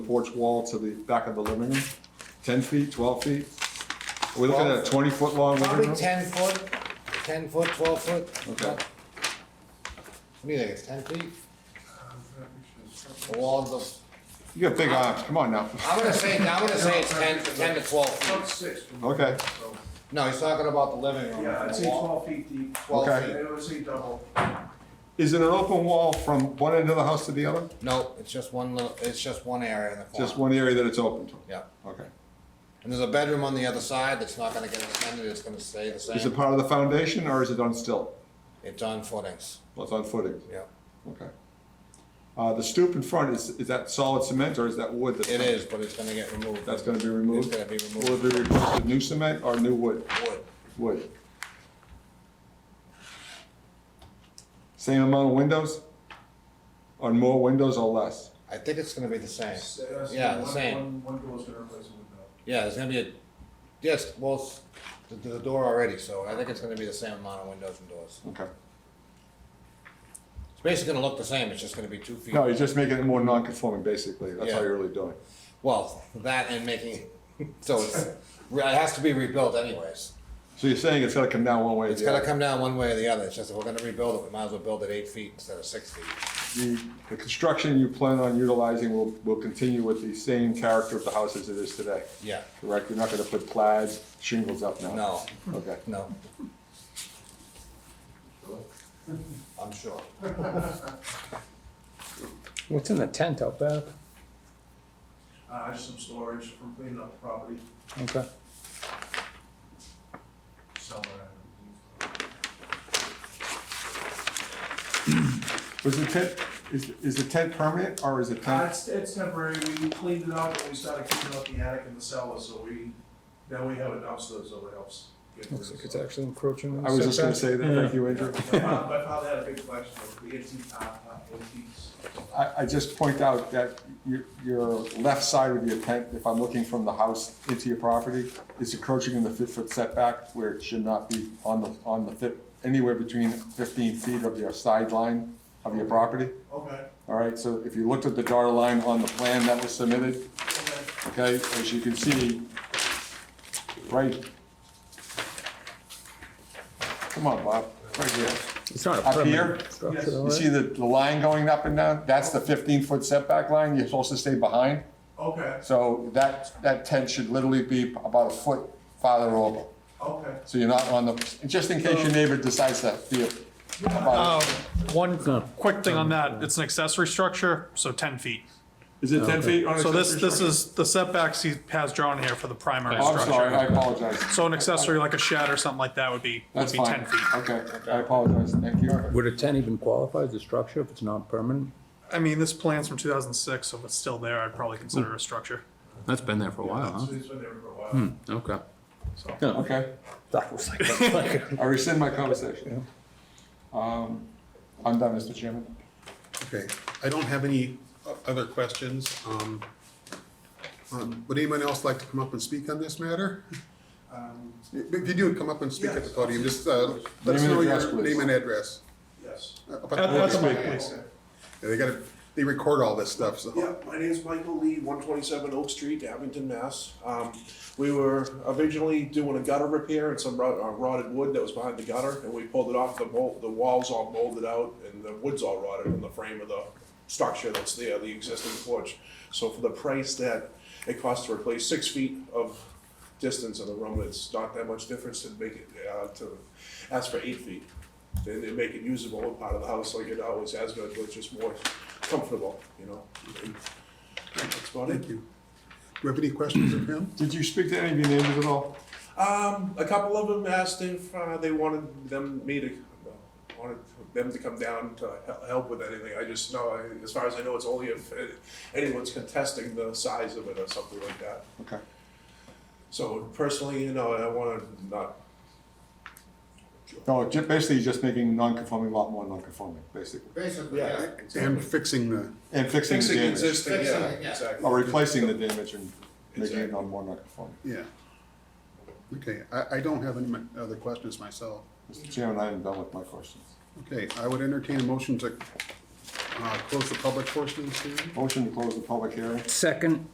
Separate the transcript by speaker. Speaker 1: porch wall to the back of the living room? Ten feet, twelve feet? Are we looking at a twenty-foot long living
Speaker 2: Probably
Speaker 1: room?
Speaker 2: ten foot, ten foot, twelve foot.
Speaker 1: Okay.
Speaker 2: What do you think, it's ten feet? The walls of,
Speaker 1: You got big arms, come on now.
Speaker 2: I'm gonna say, I'm gonna say it's ten, ten to twelve feet.
Speaker 3: About six.
Speaker 1: Okay.
Speaker 3: So,
Speaker 2: No, he's talking about the living room.
Speaker 3: Yeah, I'd say
Speaker 2: the wall.
Speaker 3: twelve feet deep.
Speaker 2: Twelve
Speaker 1: Okay.
Speaker 2: feet.
Speaker 3: I would say double.
Speaker 1: Is it an open wall from one end of the house to the other?
Speaker 2: No, it's just one little, it's just one area in the corner.
Speaker 1: Just one area that it's open to?
Speaker 2: Yeah,
Speaker 1: Okay.
Speaker 2: and there's a bedroom on the other side that's not gonna get extended, it's gonna stay the
Speaker 1: Is it
Speaker 2: same.
Speaker 1: part of the foundation or is it on stilt?
Speaker 2: It's on footings,
Speaker 1: Well, it's on footing,
Speaker 2: yeah.
Speaker 1: okay. Uh, the stoop in front, is, is that solid cement or is that wood? that's-
Speaker 2: It is, but it's gonna get removed.
Speaker 1: That's gonna be removed?
Speaker 2: It's gonna be removed.
Speaker 1: Will it be replaced with new cement or new wood?
Speaker 2: Wood.
Speaker 1: Wood. Same amount of windows? On more windows or less?
Speaker 2: I think it's gonna be the same.
Speaker 3: So, uh, so
Speaker 2: Yeah, the
Speaker 3: one-
Speaker 2: same.
Speaker 3: one- One door's gonna replace a window.
Speaker 2: Yeah, there's gonna be a, yes, well, s- the, the door already, so I think it's gonna be the same amount of windows and doors.
Speaker 1: Okay.
Speaker 2: It's basically gonna look the same, it's just gonna be two feet.
Speaker 1: No, you're just making it more non-conforming, basically. That's all
Speaker 2: Yeah.
Speaker 1: you're really doing.
Speaker 2: Well, that and making, so it's, it has to be rebuilt anyways.
Speaker 1: So you're saying it's gotta come down one way or
Speaker 2: It's
Speaker 1: the
Speaker 2: gotta
Speaker 1: other?
Speaker 2: come down one way or the other, it's just if we're gonna rebuild it, we might as well build it eight feet instead of six feet.
Speaker 1: The, the construction you plan on utilizing will, will continue with the same character of the house as it is today,
Speaker 2: Yeah,
Speaker 1: correct? You're not gonna put plaid shingles up now?
Speaker 2: no,
Speaker 1: Okay.
Speaker 2: no. I'm sure.
Speaker 4: What's in the tent out back?
Speaker 3: Uh, just some storage from cleaning up the property,
Speaker 4: Okay.
Speaker 3: somewhere.
Speaker 1: Was the tent, is, is the tent permanent or is it
Speaker 3: Uh,
Speaker 1: tent?
Speaker 3: it's, it's temporary, we cleaned it up, and we started cleaning up the attic and the cellar, so we, now we have a dumpster, so it helps. get rid of
Speaker 4: Looks like it's
Speaker 3: stuff.
Speaker 4: actually encroaching. on the
Speaker 1: I was just gonna
Speaker 4: setback.
Speaker 1: say that, thank you, Andrew.
Speaker 3: My fa- my father had a big collection of the antique, uh, uh, antiques.
Speaker 1: I, I just point out that your, your left side of your tent, if I'm looking from the house into your property, is encroaching in the fifty-foot setback where it should not be on the, on the fif, anywhere between fifteen feet of your sideline of your property.
Speaker 3: Okay,
Speaker 1: All right, so if you looked at the dotted line on the plan that was submitted,
Speaker 3: okay.
Speaker 1: okay, as you can see, right. Come on, Bob, right here.
Speaker 4: It's not a
Speaker 1: Up here?
Speaker 4: permanent structure,
Speaker 3: Yes.
Speaker 4: though,
Speaker 1: You
Speaker 4: right?
Speaker 1: see the, the line going up and down? That's the fifteen-foot setback line you're supposed to stay behind.
Speaker 3: Okay,
Speaker 1: So that, that tent should literally be about a foot farther over.
Speaker 3: okay.
Speaker 1: So you're not on the, just in case your neighbor decides to be a.
Speaker 5: Um, One quick thing on that, it's an accessory structure, so 10 feet.
Speaker 1: Is it ten feet on
Speaker 5: So this, this is the setbacks he has drawn here for the primary
Speaker 1: Oh, I'm sorry, I
Speaker 5: structure.
Speaker 1: apologize.
Speaker 5: So an accessory like a shed or something like that would be, would
Speaker 1: That's
Speaker 5: be
Speaker 1: fine.
Speaker 5: 10 feet.
Speaker 1: Okay, I apologize, thank you.
Speaker 4: Would a tent even qualify as a structure if it's not permanent?
Speaker 5: I mean, this plan's from 2006, so if it's still there, I'd probably consider it a structure,
Speaker 6: That's been there for a while,
Speaker 3: So he's been there for a while.
Speaker 6: huh? Okay.
Speaker 5: so.
Speaker 1: Okay,
Speaker 4: That was like, like
Speaker 1: I rescind my conversation. Um, I'm done, Mr. Chairman.
Speaker 7: Okay, I don't have any o- other questions. Um, um, Would anyone else like to come up and speak on this matter?
Speaker 3: Um,
Speaker 7: If if you do, come up and speak at the podium, just uh, let us
Speaker 1: Name and
Speaker 7: know
Speaker 1: address,
Speaker 7: your
Speaker 1: please.
Speaker 7: name and address.
Speaker 3: Yes.
Speaker 7: Uh, about
Speaker 5: At- at the
Speaker 7: the-
Speaker 5: mic, please.
Speaker 3: Okay.
Speaker 7: They gotta, they record all this stuff, so.
Speaker 3: Yeah, my name is Michael Lee, one twenty-seven Oak Street, Abington, Mass. Um, we were originally doing a gutter repair and some rot- uh, rotted wood that was behind the gutter, and we pulled it off, the mold, the wall's all molded out, and the wood's all rotted in the frame of the structure that's there, the existing porch. So for the price that it costs to replace six feet of distance in the room, it's not that much difference to make it, uh, to ask for eight feet. And they make it usable in part of the house like it always has been, but just more comfortable, you know? And That's about
Speaker 7: Thank
Speaker 3: it.
Speaker 7: you. Do you have any questions of him?
Speaker 1: Did you speak to any of your neighbors at all?
Speaker 3: Um, a couple of them asked if, uh, they wanted them, me to, wanted them to come down to hel- help with anything. I just know, I- as far as I know, it's only if uh, anyone's contesting the size of it or something like that.
Speaker 1: Okay.
Speaker 3: So personally, you know, I wanna not,
Speaker 1: No, ju- basically, you're just making non-conforming a lot more non-conforming, basically.
Speaker 2: Basically,
Speaker 3: yeah,
Speaker 7: And fixing the,
Speaker 1: And fixing the
Speaker 3: fixing
Speaker 1: damage,
Speaker 3: existing,
Speaker 2: Fixing
Speaker 3: yeah,
Speaker 2: it, yeah.
Speaker 3: exactly.
Speaker 1: or replacing the damage and making it
Speaker 3: Exactly.
Speaker 1: non more non-conforming.
Speaker 7: yeah. Okay, I, I don't have any mi- other questions myself.
Speaker 1: Mr. Chairman, I am done with my questions.
Speaker 7: Okay, I would entertain a motion to
Speaker 8: uh, close the public portion of this hearing?
Speaker 7: Motion to close the public hearing.
Speaker 4: Second.